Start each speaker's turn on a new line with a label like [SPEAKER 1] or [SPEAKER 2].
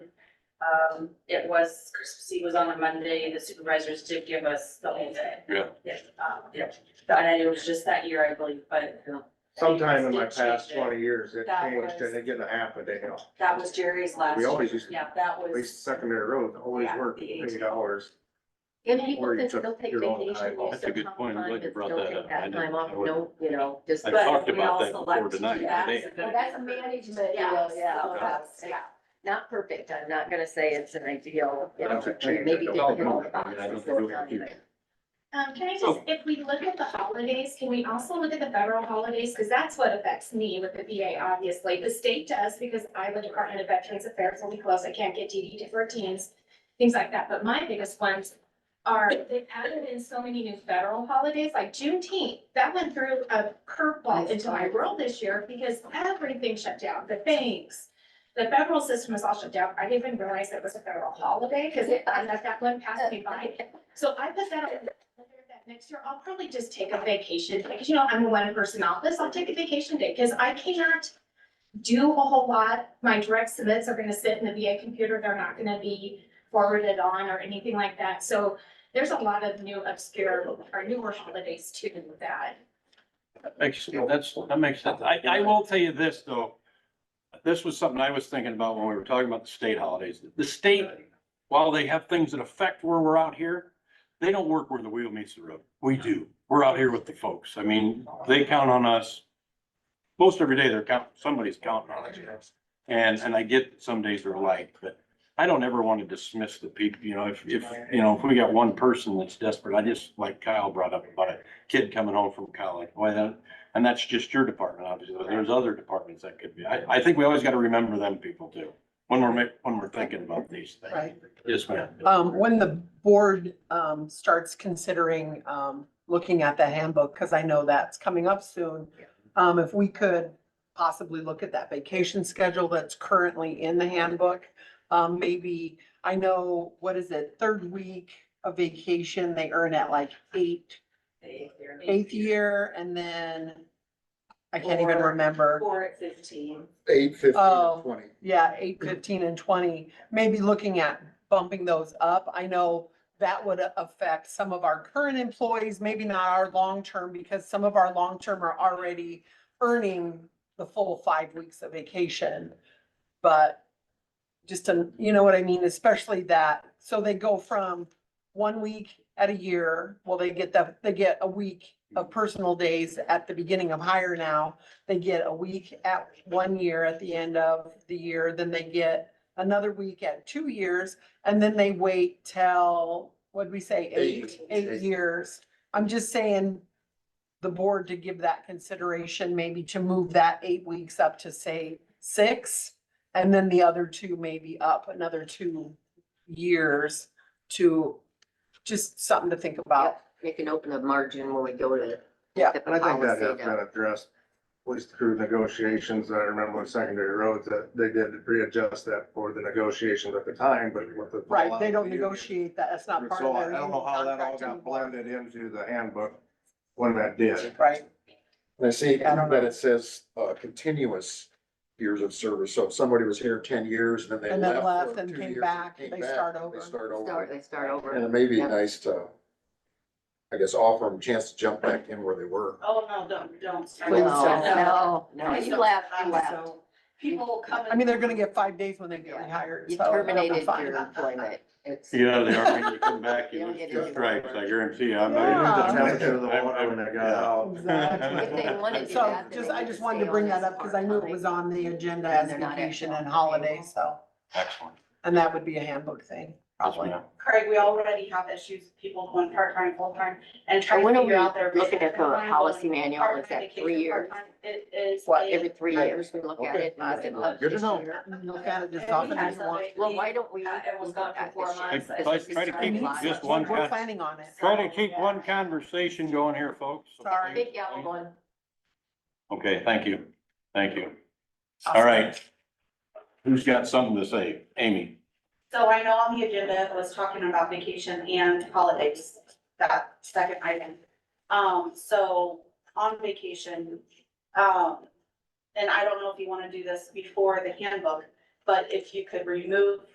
[SPEAKER 1] Um, it was, Christmas Eve was on a Monday, the supervisors did give us the whole day.
[SPEAKER 2] Yeah.
[SPEAKER 1] Yeah, um, yeah, and it was just that year, I believe, but you know,
[SPEAKER 3] Sometime in
[SPEAKER 1] It
[SPEAKER 3] my
[SPEAKER 1] changed
[SPEAKER 3] past
[SPEAKER 1] it.
[SPEAKER 3] twenty years, it
[SPEAKER 1] That
[SPEAKER 3] changed
[SPEAKER 1] was-
[SPEAKER 3] and they get a half a day off.
[SPEAKER 1] that was Jerry's last.
[SPEAKER 3] We always used, to
[SPEAKER 1] Yeah, that
[SPEAKER 3] at
[SPEAKER 1] was,
[SPEAKER 3] least secondary roads, always
[SPEAKER 1] Yeah,
[SPEAKER 3] work
[SPEAKER 1] the
[SPEAKER 3] eight
[SPEAKER 1] eight.
[SPEAKER 3] hours.
[SPEAKER 4] And people
[SPEAKER 3] Or you
[SPEAKER 4] can
[SPEAKER 3] took
[SPEAKER 4] still take
[SPEAKER 3] your own
[SPEAKER 4] vacation,
[SPEAKER 3] time off.
[SPEAKER 4] you
[SPEAKER 2] That's a
[SPEAKER 4] still
[SPEAKER 2] good
[SPEAKER 4] come
[SPEAKER 2] point. I'm
[SPEAKER 4] on,
[SPEAKER 2] glad you
[SPEAKER 4] but
[SPEAKER 2] brought
[SPEAKER 4] still
[SPEAKER 2] that
[SPEAKER 4] take
[SPEAKER 2] up. I
[SPEAKER 4] that
[SPEAKER 2] didn't-
[SPEAKER 4] time
[SPEAKER 2] I
[SPEAKER 4] off,
[SPEAKER 2] wouldn't-
[SPEAKER 4] no, you know, just.
[SPEAKER 2] I
[SPEAKER 1] but
[SPEAKER 2] talked
[SPEAKER 1] we
[SPEAKER 2] about
[SPEAKER 1] all
[SPEAKER 2] that before
[SPEAKER 1] select to do
[SPEAKER 2] tonight,
[SPEAKER 1] that,
[SPEAKER 2] today.
[SPEAKER 1] so
[SPEAKER 4] Well, that's management, you know, yeah,
[SPEAKER 1] so
[SPEAKER 4] that's,
[SPEAKER 1] that's- yeah.
[SPEAKER 4] not perfect, I'm not gonna say it's an ideal, you
[SPEAKER 3] I
[SPEAKER 4] know,
[SPEAKER 3] don't think-
[SPEAKER 4] maybe they can all the
[SPEAKER 3] I mean, I don't think
[SPEAKER 4] boxes. so
[SPEAKER 3] we
[SPEAKER 4] it's not
[SPEAKER 3] can-
[SPEAKER 4] like-
[SPEAKER 5] Um, can I just,
[SPEAKER 2] Oh.
[SPEAKER 5] if we look at the holidays, can we also look at the federal holidays? Because that's what affects me with the VA, obviously. The state does because I'm the Department of Veterans Affairs and we close, I can't get DD to fourteens, things like that. But my biggest ones are they've added in so many new federal holidays, like Juneteenth. That went through a curveball into my world this year because everything shut down, the banks. The federal system was all shut down. I didn't even realize it was a federal holiday because I let that one pass me by. So I put that on the calendar that next year, I'll probably just take a vacation, because you know, I'm a one person office, I'll take a vacation day, because I cannot do a whole lot. My direct submits are gonna sit in the VA computer, they're not gonna be forwarded on or anything like that, so there's a lot of new obscure or newer holidays too that.
[SPEAKER 2] That Makes, that's, that makes sense. I, I will tell you this, though. This was something I was thinking about when we were talking about the state holidays. The state, while they have things that affect where we're out here, they don't work where the wheel meets the road. We do. We're out here with the folks. I mean, they count on us. Most every day they're counting, somebody's counting on us. And, and I get that some days are alike, but I don't ever want to dismiss the people, you know, if, if, you know, if we got one person that's desperate, I just, like Kyle brought up about a kid coming home from college, boy, that, and that's just your department, obviously, but there's other departments that could be, I, I think we always gotta remember them people too. When we're ma- when we're thinking about these things.
[SPEAKER 6] Right.
[SPEAKER 2] Yes, ma'am.
[SPEAKER 6] Um, when the board, um, starts considering, um, looking at the handbook, because I know that's coming up soon. Um, if we could possibly look at that vacation schedule that's currently in the handbook. Um, maybe, I know, what is it, third week of vacation, they earn at like eight, eighth year, and then I can't even
[SPEAKER 1] Or-
[SPEAKER 6] remember.
[SPEAKER 1] four at fifteen.
[SPEAKER 3] Eight,
[SPEAKER 6] Oh.
[SPEAKER 3] fifteen, twenty.
[SPEAKER 6] Yeah, eight, fifteen and twenty, maybe looking at bumping those up. I know that would affect some of our current employees, maybe not our long-term, because some of our long-term are already earning the full five weeks of vacation. But just to, you know what I mean, especially that, so they go from one week at a year, well, they get the, they get a week of personal days at the beginning of hire now. They get a week at one year at the end of the year, then they get another week at two years, and then they wait till, what'd we say, eight,
[SPEAKER 3] Eight. Eight.
[SPEAKER 6] eight years. I'm just saying the board to give that consideration, maybe to move that eight weeks up to say six. And then the other two maybe up another two years to, just something to think about.
[SPEAKER 4] Yep, They can open a margin when we go to.
[SPEAKER 6] Yeah,
[SPEAKER 4] get the
[SPEAKER 3] And I think that
[SPEAKER 4] policy
[SPEAKER 3] has
[SPEAKER 4] down.
[SPEAKER 3] been addressed, at least through negotiations. I remember with secondary roads that they did readjust that for the negotiations at the time, but with the.
[SPEAKER 6] Right,
[SPEAKER 3] fallout
[SPEAKER 6] they don't
[SPEAKER 3] of the union.
[SPEAKER 6] negotiate that, that's not part
[SPEAKER 3] So
[SPEAKER 6] of
[SPEAKER 3] I
[SPEAKER 6] their.
[SPEAKER 3] don't know
[SPEAKER 6] union
[SPEAKER 3] how that all
[SPEAKER 6] contract
[SPEAKER 3] got
[SPEAKER 6] anymore.
[SPEAKER 3] blended into the handbook when that did.
[SPEAKER 6] Right,
[SPEAKER 7] And I see
[SPEAKER 6] I don't
[SPEAKER 7] that it says, uh, continuous years of service, so if somebody was here ten years, then they left.
[SPEAKER 6] And then left
[SPEAKER 7] for
[SPEAKER 6] and
[SPEAKER 7] two
[SPEAKER 6] came
[SPEAKER 7] years
[SPEAKER 6] back,
[SPEAKER 7] came
[SPEAKER 6] they
[SPEAKER 7] back,
[SPEAKER 6] start
[SPEAKER 7] they
[SPEAKER 6] over.
[SPEAKER 7] start
[SPEAKER 4] Start,
[SPEAKER 7] over.
[SPEAKER 4] they start over.
[SPEAKER 7] And it may be
[SPEAKER 4] Yep.
[SPEAKER 7] nice to, I guess, offer them a chance to jump back in where they were.
[SPEAKER 1] Oh, no, don't, don't. start.
[SPEAKER 4] No, no, no,
[SPEAKER 1] I'm
[SPEAKER 4] you
[SPEAKER 1] so-
[SPEAKER 4] left, you
[SPEAKER 1] I'm
[SPEAKER 4] left.
[SPEAKER 1] so- People come.
[SPEAKER 6] I mean, they're gonna get five days when they get
[SPEAKER 4] Yeah.
[SPEAKER 6] rehired,
[SPEAKER 4] You
[SPEAKER 6] so. it'll be
[SPEAKER 4] terminated
[SPEAKER 6] fine.
[SPEAKER 4] your employment. It's.
[SPEAKER 2] You know, they are, when you come back,
[SPEAKER 4] You
[SPEAKER 2] you
[SPEAKER 4] don't
[SPEAKER 2] lose
[SPEAKER 4] get
[SPEAKER 2] two
[SPEAKER 4] it.
[SPEAKER 2] stripes, I guarantee you. I'm
[SPEAKER 6] Yeah.
[SPEAKER 2] not-
[SPEAKER 3] The
[SPEAKER 2] I'm not-
[SPEAKER 3] temperature of the water when it got out.
[SPEAKER 6] Exactly.
[SPEAKER 4] If they wanted to.
[SPEAKER 6] So
[SPEAKER 4] that, then
[SPEAKER 6] just,
[SPEAKER 4] they
[SPEAKER 6] I
[SPEAKER 4] could
[SPEAKER 6] just wanted
[SPEAKER 4] stay
[SPEAKER 6] to
[SPEAKER 4] on
[SPEAKER 6] bring
[SPEAKER 4] as
[SPEAKER 6] that up because I knew it was
[SPEAKER 4] part-time.
[SPEAKER 6] on the agenda
[SPEAKER 4] And
[SPEAKER 6] as
[SPEAKER 4] they're not
[SPEAKER 6] vacation
[SPEAKER 4] actually
[SPEAKER 6] and
[SPEAKER 4] on the payroll.
[SPEAKER 6] holiday, so,
[SPEAKER 2] Excellent.
[SPEAKER 6] and that would be a handbook thing,
[SPEAKER 2] Yes,
[SPEAKER 6] probably.
[SPEAKER 2] ma'am.
[SPEAKER 1] Craig, we already have issues with people going part-time, full-time, and
[SPEAKER 4] I
[SPEAKER 1] trying to
[SPEAKER 4] wonder,
[SPEAKER 1] figure out their.
[SPEAKER 4] we're looking at the
[SPEAKER 1] vacation
[SPEAKER 4] policy
[SPEAKER 1] timeline,
[SPEAKER 4] manual, is
[SPEAKER 1] part-time
[SPEAKER 4] that three
[SPEAKER 1] vacation,
[SPEAKER 4] years?
[SPEAKER 1] part-time. It is.
[SPEAKER 4] What,
[SPEAKER 1] a-
[SPEAKER 4] every three years we look at
[SPEAKER 7] Okay.
[SPEAKER 4] it? and is it up
[SPEAKER 7] Good to
[SPEAKER 4] this
[SPEAKER 7] know.
[SPEAKER 4] year?
[SPEAKER 6] You can Look at it just
[SPEAKER 1] And we
[SPEAKER 6] often
[SPEAKER 1] had
[SPEAKER 6] as you want.
[SPEAKER 1] somebody-
[SPEAKER 4] Well, why don't we?
[SPEAKER 1] Uh, it was
[SPEAKER 4] look
[SPEAKER 1] gone for
[SPEAKER 4] at
[SPEAKER 1] four
[SPEAKER 4] this year?
[SPEAKER 1] months.
[SPEAKER 4] Because
[SPEAKER 2] Try-
[SPEAKER 4] it's
[SPEAKER 2] try to
[SPEAKER 4] just
[SPEAKER 2] keep
[SPEAKER 4] a lot.
[SPEAKER 2] just one
[SPEAKER 6] We're
[SPEAKER 2] con-
[SPEAKER 6] planning on it.
[SPEAKER 2] Try to keep one conversation going here, folks.
[SPEAKER 6] Sorry.
[SPEAKER 4] Big yellow one.
[SPEAKER 2] Okay, thank you. Thank you. All right. Who's got something to say? Amy?
[SPEAKER 1] So I know on the agenda it was talking about vacation and holidays, that second item. Um, so on vacation, um, and I don't know if you want to do this before the handbook, but if you could remove